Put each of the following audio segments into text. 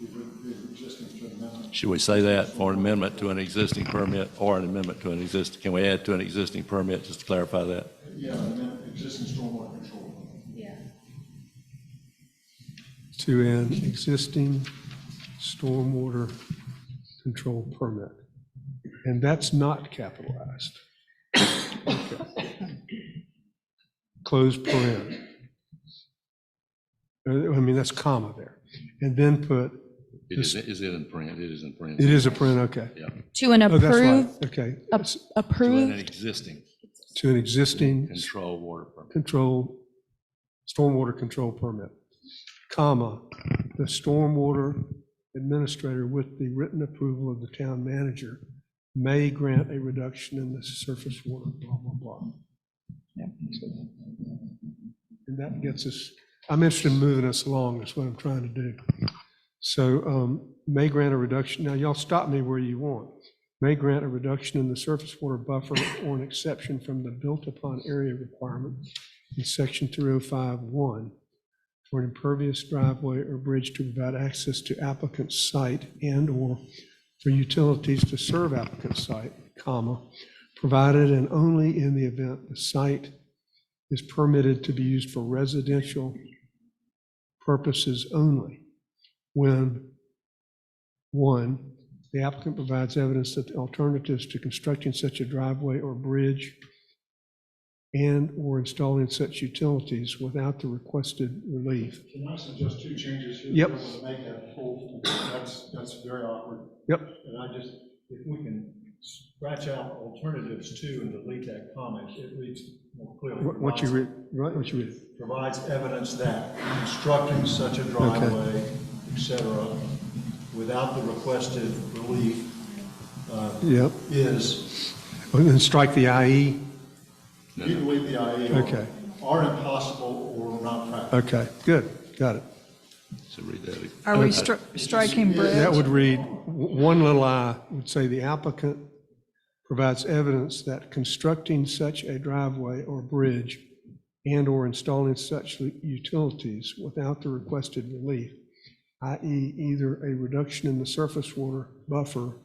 the the existing to an amendment. Should we say that for an amendment to an existing permit or an amendment to an existing? Can we add to an existing permit just to clarify that? Yeah, amend existing stormwater control. Yeah. to an existing stormwater control permit. And that's not capitalized. Okay. Close paren. Uh, I mean, that's comma there. And then put, It is, is it in print? It is in print. it is a paren, okay. To an Oh, that's right, approved, okay. ap- It's To an approved, existing To an existing control water permit. control, stormwater control permit, comma, the stormwater administrator with the written approval of the town manager may grant a reduction in the surface water, blah, blah, blah. And that gets us, I'm interested in moving us along, that's what I'm trying to do. So um, may grant a reduction, now y'all stop me where you want. May grant a reduction in the surface water buffer or an exception from the built-upon area requirement in section 305-1 for an impervious driveway or bridge to provide access to applicant's site and/or for utilities to serve applicant's site, comma, provided and only in the event the site is permitted to be used for residential purposes only when, one, the applicant provides evidence that the alternatives to constructing such a driveway or bridge and/or installing such utilities without the requested relief. Can I suggest two changes here? Yep. We're gonna Make that full, that's, that's very awkward. Yep. And I just, if we can scratch out alternatives too and delete that comment, it reads more clearly. What what you read, right, what you read? Provides evidence that constructing such a driveway, et cetera, without the requested relief Yep, is, and then strike the E? IE, you can leave the IA. or- Okay. Are impossible or not practical. okay, good, got it. So read that. Are we stri- striking That bridge? would read, w- one little I would say the applicant provides evidence that constructing such a driveway or bridge and/or installing such li- utilities without the requested relief, i.e. either a reduction in the surface water buffer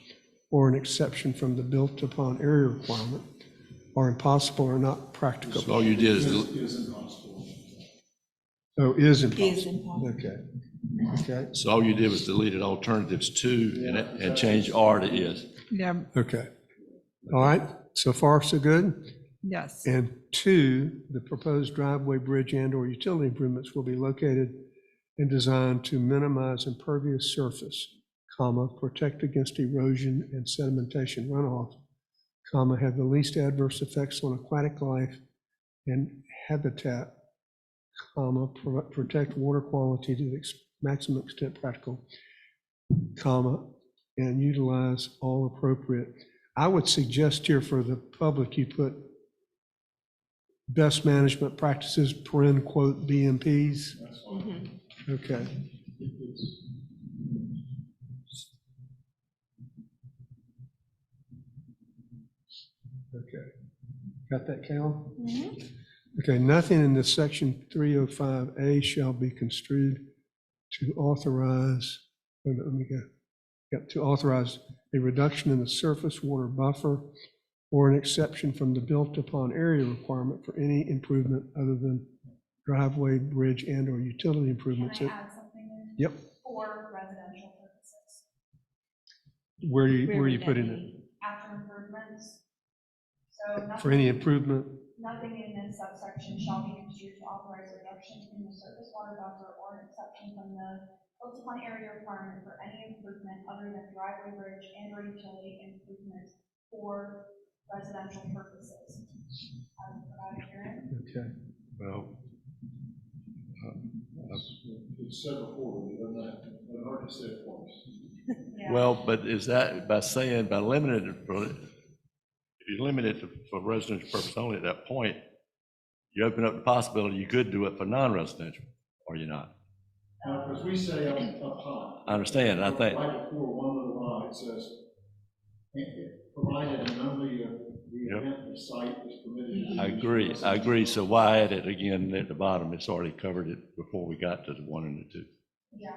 or an exception from the built-upon area requirement are impossible or not practicable. All you did Is, is, is impossible. Oh, is impossible. Okay. Okay, so all you did was deleted alternatives to and, and change R to is. Yeah, okay. All right, so far, so good? yes. And two, the proposed driveway, bridge, and/or utility improvements will be located and designed to minimize impervious surface, comma, protect against erosion and sedimentation runoff, comma, have the least adverse effects on aquatic life and habitat, comma, pro- protect water quality to the ex- maximum extent practical, comma, and utilize all appropriate. I would suggest here for the public, you put best management practices, paren quote, BMPs? Okay. Okay. Got that, Cal? Okay, nothing in this section 305A shall be construed to authorize, wait a minute, let me go. Yep, to authorize a reduction in the surface water buffer or an exception from the built-upon area requirement for any improvement other than driveway, bridge, and/or utility Can improvements. I add something in? Yep, For residential purposes, where are you, where are you putting it? after improvements. So For nothing, any improvement, nothing in this subsection shall be construed to authorize a reduction in the surface water buffer or an exception from the built-upon area requirement for any improvement other than driveway bridge and or utility improvements for residential purposes. Um, without hearing, okay. Well, It's said before, you don't have, to- it's hard to say it once. yeah. Well, but is that, by saying, by limiting it, for- if you limit it to- for residential purpose only at that point, you open up the possibility you could do it for non-residential, or you're not. Now, because we say up, up high. I understand, and I think, Right before one little line, it says, "And it- provided and only if the Yep. event of site is permitted. to I use agree, I residential. agree, so why add it again at the bottom? It's already covered it before we got to the one and the two. Yeah,